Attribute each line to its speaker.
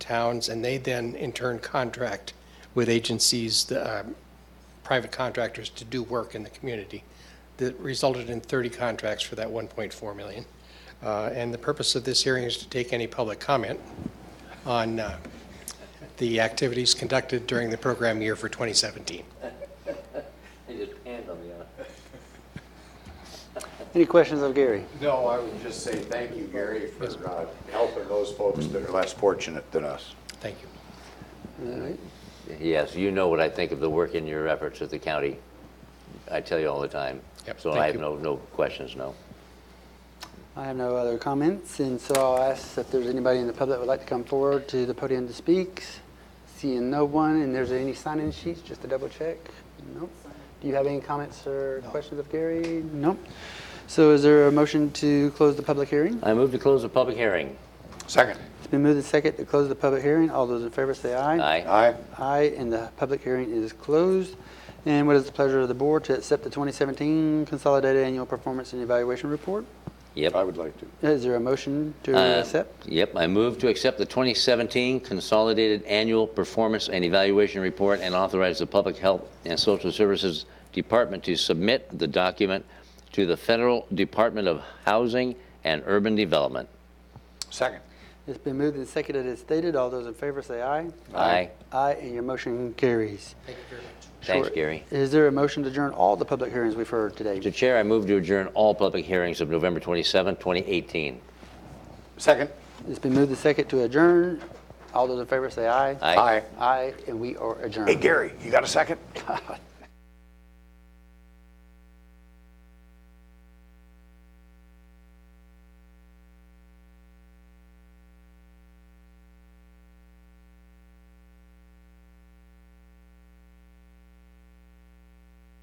Speaker 1: towns, and they then in turn contract with agencies, the, um, private contractors to do work in the community. That resulted in 30 contracts for that 1.4 million. Uh, And the purpose of this hearing is to take any public comment on uh, the activities conducted during the program year for 2017.
Speaker 2: They just panned on the, uh,
Speaker 3: Any questions of Gary?
Speaker 4: No, I would just say thank you, Gary, for uh, helping those folks that are less fortunate than us.
Speaker 1: Thank you.
Speaker 3: All right.
Speaker 2: Yes, you know what I think of the work and your efforts at the county. I tell you all the time.
Speaker 1: Yep,
Speaker 2: So
Speaker 1: thank
Speaker 2: I have
Speaker 1: you.
Speaker 2: no, no questions, no.
Speaker 3: I have no other comments, and so I'll ask if there's anybody in the public that would like to come forward to the podium to speak. Seeing no one, and there's any sign-in sheets, just to double check? Nope. Do you have any comments or questions of Gary? Nope. So is there a motion to close the public hearing?
Speaker 2: I move to close the public hearing.
Speaker 4: Second.
Speaker 3: It's been moved and second to close the public hearing. All those in favor say aye.
Speaker 2: Aye.
Speaker 4: Aye.
Speaker 3: Aye, and the public hearing is closed. And what is the pleasure of the board to accept the 2017 Consolidated Annual Performance and Evaluation Report?
Speaker 4: I
Speaker 2: Yep.
Speaker 4: would like to.
Speaker 3: Is there a motion to
Speaker 2: Uh,
Speaker 3: accept?
Speaker 2: Yep, I move to accept the 2017 Consolidated Annual Performance and Evaluation Report and authorize the Public Health and Social Services Department to submit the document to the Federal Department of Housing and Urban Development.
Speaker 4: Second.
Speaker 3: It's been moved and seconded as stated. All those in favor say aye.
Speaker 2: Aye.
Speaker 3: Aye, and your motion carries.
Speaker 2: Thanks,
Speaker 3: Sure.
Speaker 2: Gary.
Speaker 3: Is there a motion to adjourn all the public hearings we've heard
Speaker 2: Mr.
Speaker 3: today?
Speaker 2: Chair, I move to adjourn all public hearings of November 27, 2018.
Speaker 4: Second.
Speaker 3: It's been moved and seconded to adjourn. All those in favor say aye.
Speaker 2: Aye.
Speaker 4: Aye.
Speaker 3: Aye, and we are adjourned.
Speaker 4: Hey, Gary, you got a second?